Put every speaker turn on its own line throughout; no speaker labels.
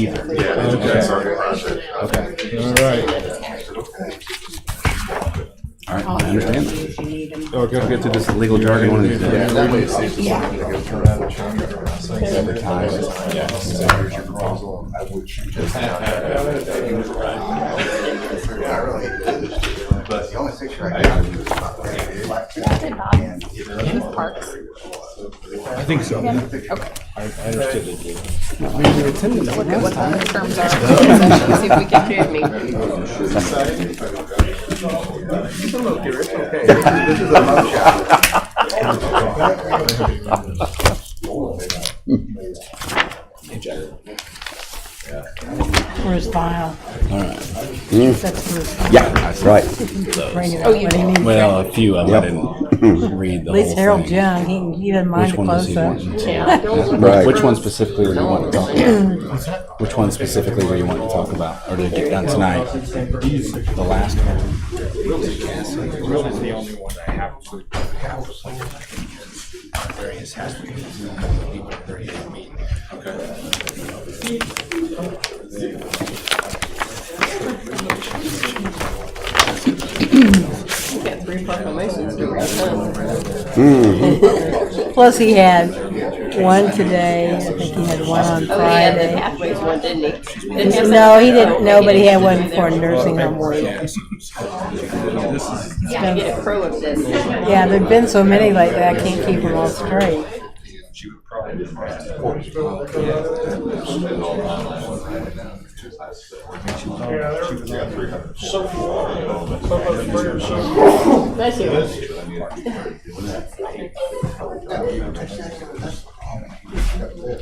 either.
Yeah,
Okay.
it's our project.
Okay.
All right,
All right, I understand that.
If you need them.
oh, gotta
Get to this legal jargon one of these
Yeah,
days.
that way it saves us.
Yeah.
having to go through that with John and everyone else.
Advertise.
Yeah. So here's your proposal, I would shoot this down. Yeah, I really did. But the only picture I got was about that big black
Did Bob?
and it was
With parks?
I think so.
Yeah.
We
Okay.
were attending that
Look at what
last
the
time.
midterms are. See if we can do me.
This is a mug shot.
Where's file? That's where his file.
Yeah, right.
Bring it up
Oh, you
when he
know.
needs it.
Well, a few of them, I didn't read the
At least
whole
Harold's
thing.
young, he, he doesn't mind
Which
a
one does he
close-up.
want?
Right. Which one specifically were you wanting to talk about? Which one specifically were you wanting to talk about, or did it get done tonight? The last one?
We got three proclamations due at once.
Plus he had one today, I think he had one on
Oh, he had the
Friday.
pathways one, didn't he? Didn't have
No, he
something-
didn't, no, but he had one for
Yeah,
nursing home work.
to get a pro of this.
Yeah, there've been so many like that, I can't keep them all straight.
Bless you.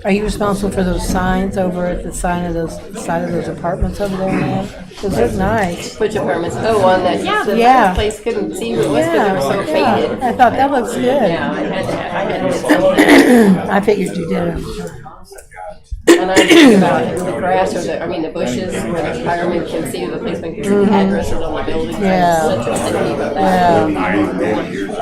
Are you responsible for those signs over at the sign of those, side of those apartments over there, man? Those look nice.
Which apartments? Oh, on that, yeah,
Yeah.
the place couldn't see who it was because they were
Yeah,
so
yeah,
faded.
I thought that looks
Yeah, I
good.
had to, I had to get something.
I figured you did.
And I think about the grass or the, I mean, the bushes where the firemen can see, the policemen can see the addresses on the buildings.
Mm-hmm. Yeah.
Such a city with that.
Yeah.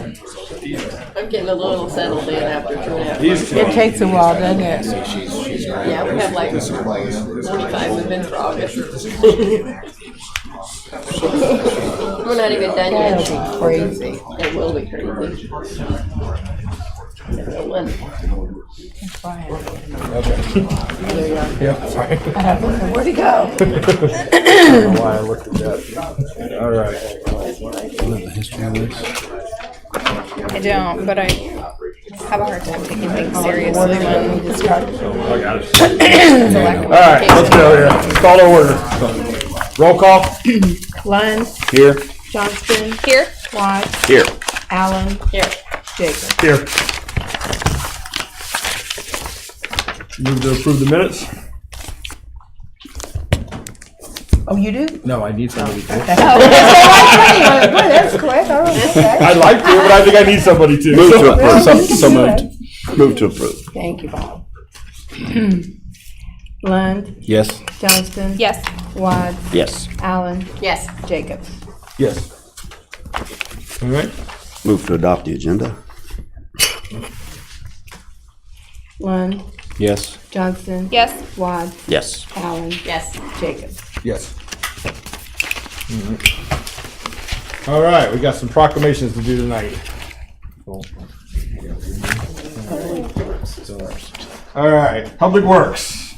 I'm getting a little settled in after two and a half months.
It takes a while, doesn't it?
Yeah, we have like twenty-five we've been for August. We're not even done yet.
That'll be crazy.
It will be crazy. It will. Where'd he go?
Why I looked at that. All right.
I don't, but I have a hard time taking things seriously when it's a lack
All
of.
right, let's go here. Let's Call to order. Roll call.
Lund,
Here.
Johnston,
Here,
Watts,
Here.
Allen,
Here.
Jacob.
Here. Move to approve the minutes?
Oh, you do? Oh,
No, I need somebody to.
Boy, that's quick, all right, okay.
I'd like to, but I think I need somebody to.
Move to
Well,
approve.
you
So,
can
so
do
moved.
it.
Move to approve.
Thank you, Bob. Lund,
Yes.
Johnston.
yes.
Watts,
Yes.
Allen,
Yes.
Jacob.
Yes. All right.
Move to adopt the agenda.
Lund,
Yes.
Johnston.
Yes.
Watts,
Yes.
Allen,
Yes.
Jacob.
Yes. Mm-hmm. All right, we got some proclamations to do tonight. All right, Public Works.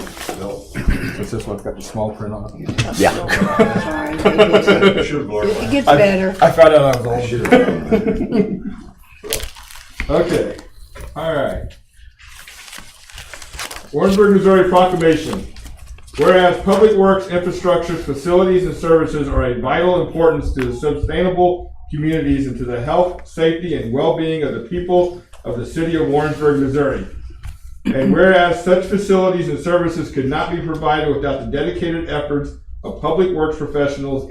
It's this one's got the small print on it.
Yeah.
It gets better.
I found out I was old. Okay, all right. Warrensburg, Missouri proclamation. Whereas public works, infrastructures, facilities, and services are of vital importance to the sustainable communities and to the health, safety, and well-being of the people of the city of Warrensburg, Missouri. And whereas such facilities and services could not be provided without the dedicated efforts of public works professionals